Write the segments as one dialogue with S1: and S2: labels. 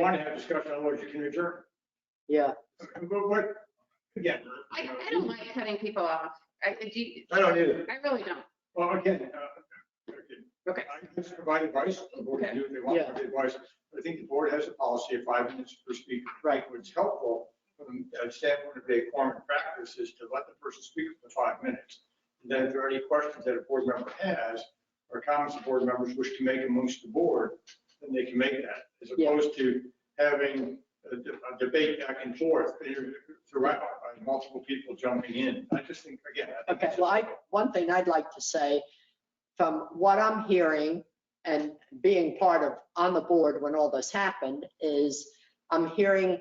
S1: want to have discussion on what you can adjourn.
S2: Yeah,
S1: But what, again.
S3: I, I don't like cutting people off. I, do you-
S1: I don't either.
S3: I really don't.
S1: Well, again, uh,
S3: Okay.
S1: I can just provide advice, the board can do if they want to
S2: Yeah.
S1: provide advice. I think the board has a policy of five minutes per speaker.
S2: Right.
S1: What's helpful from a standpoint of a form of practice is to let the person speak for the five minutes. And then if there are any questions that a board member has or comments the board members wish to make amongst the board, then they can make that. As
S2: Yeah.
S1: opposed to having a de- a debate back and forth throughout by multiple people jumping in. I just think, again, I think
S2: okay,
S1: that's
S2: well, I, one thing I'd like to say, from what I'm hearing and being part of, on the board when all this happened, is I'm hearing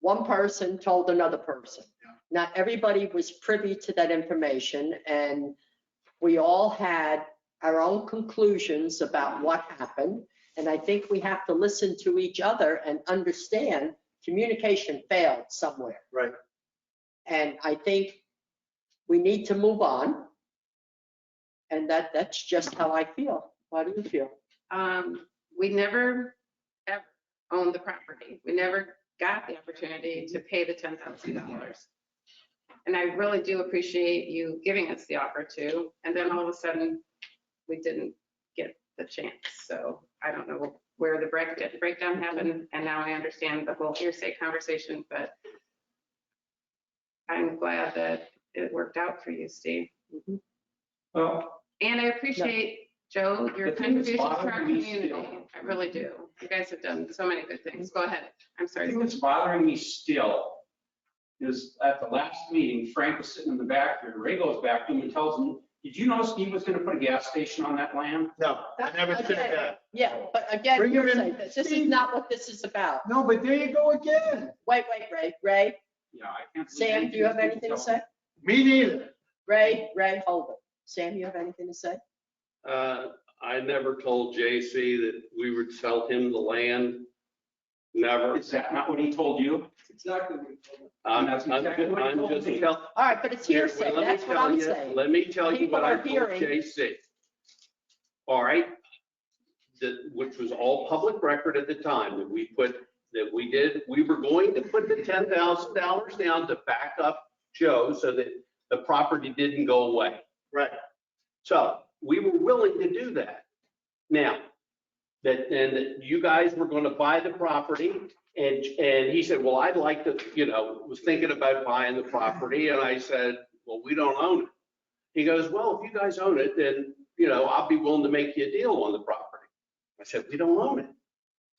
S2: one person told another person. Not everybody was privy to that information, and we all had our own conclusions about what happened. And I think we have to listen to each other and understand communication failed somewhere.
S1: Right.
S2: And I think we need to move on. And that, that's just how I feel. How do you feel?
S3: Um, we never ever owned the property. We never got the opportunity to pay the ten thousand dollars. And I really do appreciate you giving us the offer to, and then all of a sudden, we didn't get the chance. So I don't know where the break- breakdown happened, and now I understand the whole hearsay conversation, but I'm glad that it worked out for you, Steve.
S2: Mhm.
S4: Well,
S3: And I appreciate, Joe, your
S4: The thing
S3: contribution
S4: is,
S3: to our
S4: bothering me
S3: community.
S4: still-
S3: I really do. You guys have done so many good things. Go ahead. I'm
S4: the
S3: sorry.
S4: thing that's bothering me still is at the last meeting, Frank was sitting in the back here, Ray goes back to him and tells him, did you know Steve was gonna put a gas station on that land?
S1: No, I never said
S2: Again,
S1: that.
S2: Yeah, but again,
S1: Bring
S2: you're
S1: him in.
S2: saying this, this is not what this is about.
S1: No, but there you go again.
S2: Wait, wait, Ray, Ray,
S4: Yeah, I can't. believe
S2: Sam, do you have anything
S4: anything
S2: to say?
S1: Me neither.
S2: Ray, Ray, hold it. Sam, you have anything to say?
S5: Uh, I never told JC that we would sell him the land. Never.
S4: Is that not what he told you?
S6: Exactly.
S5: I'm,
S4: That's
S5: I'm
S4: exactly
S5: ju-
S4: what he
S5: I'm
S4: told
S5: just
S4: me.
S5: telling.
S2: All right, but it's hearsay.
S5: Let me
S2: That's what
S5: tell
S2: I'm
S5: you-
S2: saying.
S5: Let me tell you
S2: People
S5: what I
S2: are
S5: told
S2: hearing.
S5: JC. All right? That, which was all public record at the time, that we put, that we did, we were going to put the ten thousand dollars down to back up Joe so that the property didn't go away.
S1: Right.
S5: So we were willing to do that. Now, that, and that you guys were going to buy the property and, and he said, well, I'd like to, you know, was thinking about buying the property. And I said, well, we don't own it. He goes, well, if you guys own it, then, you know, I'll be willing to make you a deal on the property. I said, we don't own it.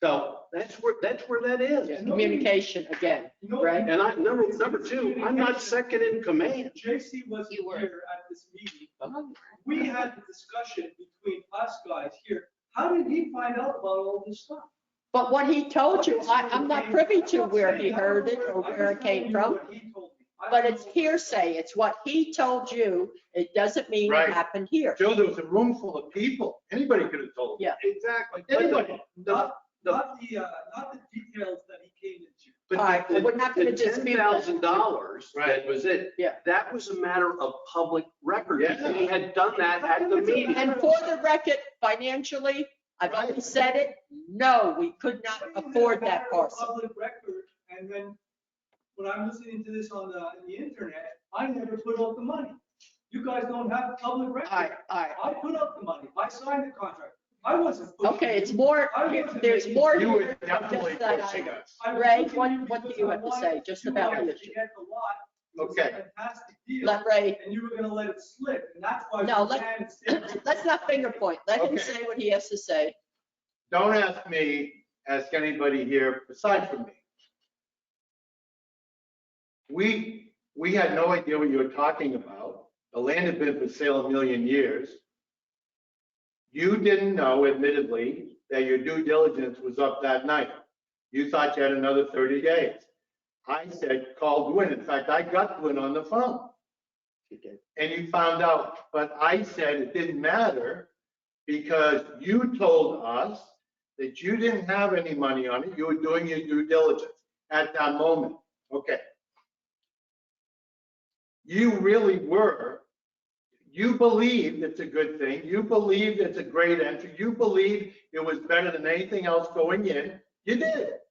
S5: So that's where, that's where that
S2: Yeah,
S5: is.
S2: Communication again. Right.
S5: And I, number, number two, I'm not second in command.
S6: JC wasn't
S3: You were.
S6: here at this meeting. We had the discussion between us guys here. How did he find out about all this stuff?
S2: But what he told you, I, I'm not privy to where he heard it or
S6: I'm
S2: where it
S6: just telling
S2: came
S6: you
S2: from.
S6: what he told me. I
S2: But
S6: don't
S2: it's
S6: know.
S2: hearsay. It's what he told you. It doesn't mean it
S1: Right.
S2: happened here.
S1: Joe, there was a room full of people. Anybody could have told.
S2: Yeah.
S1: Exactly.
S5: But the-
S1: Anybody.
S5: the-
S6: Not, not the, uh, not the details that he came into.
S5: but
S2: All right, well,
S5: the-
S2: we're not
S5: the
S2: gonna dispute that.
S5: $10,000, that
S1: Right.
S5: was it.
S2: Yeah.
S5: That was a matter of public record.
S1: Yeah.
S5: We had done that at the meeting.
S2: And for the record, financially, I've always said it, no, we could not
S6: Why do you have
S2: afford
S6: a
S2: that
S6: matter of
S2: parcel.
S6: Public record, and then when I'm listening to this on the, on the internet, I never put up the money. You guys don't have public record.
S2: All right, all right.
S6: I put up the money. I signed the contract. I wasn't. pushing
S2: Okay,
S6: you.
S2: it's more,
S6: I wasn't
S2: there's
S6: making-
S2: more.
S1: You
S2: here
S1: were
S2: than
S1: definitely
S2: just that
S1: pushing
S2: item.
S1: us.
S6: I was
S2: Ray,
S6: pushing
S2: what-
S6: you
S2: what do
S6: because
S2: you
S6: I
S2: have to
S6: wanted
S2: say just
S6: you
S2: about
S6: guys
S2: the
S6: to
S2: issue?
S6: get the lot. It was a
S1: Okay.
S6: Fantastic deal,
S2: Let Ray,
S6: and you were gonna let it slip, and that's why.
S2: No,
S6: we
S2: let-
S6: had it sit.
S2: let's not finger point. Let him
S1: Okay.
S2: say what he has to say.
S1: Don't ask me, ask anybody here aside from me. We, we had no idea what you were talking about. The land had been for sale a million years. You didn't know admittedly that your due diligence was up that night. You thought you had another 30 days. I said, call Gwen. In fact, I got Gwen on the phone. And you found out, but I said it didn't matter because you told us that you didn't have any money on it. You were doing your due diligence at that moment. Okay. You really were. You believed it's a good thing. You believed it's a great entry. You believed it was better than anything else going in. You did.